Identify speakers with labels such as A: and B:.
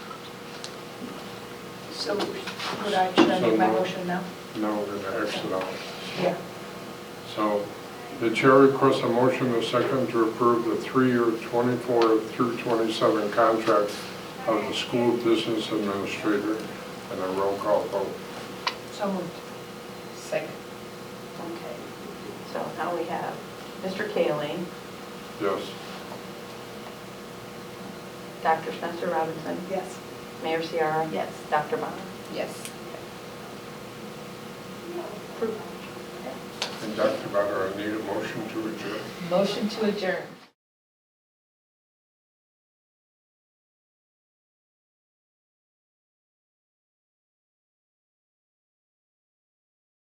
A: So would I, should I make my motion now?
B: No, we're going to X it out.
A: Yeah.
B: So the chair requests a motion and a second to approve the three-year 24 through 27 contract of the school business administrator and a roll call vote.
A: So moved.
C: Second.
D: Okay, so now we have Mr. Kaling,
B: Yes.
D: Dr. Spencer Robinson,
A: Yes.
D: Mayor Ciara. Yes. Dr. Bond.
C: Yes.
B: And Dr. Butler, I need a motion to adjourn.
C: Motion to adjourn.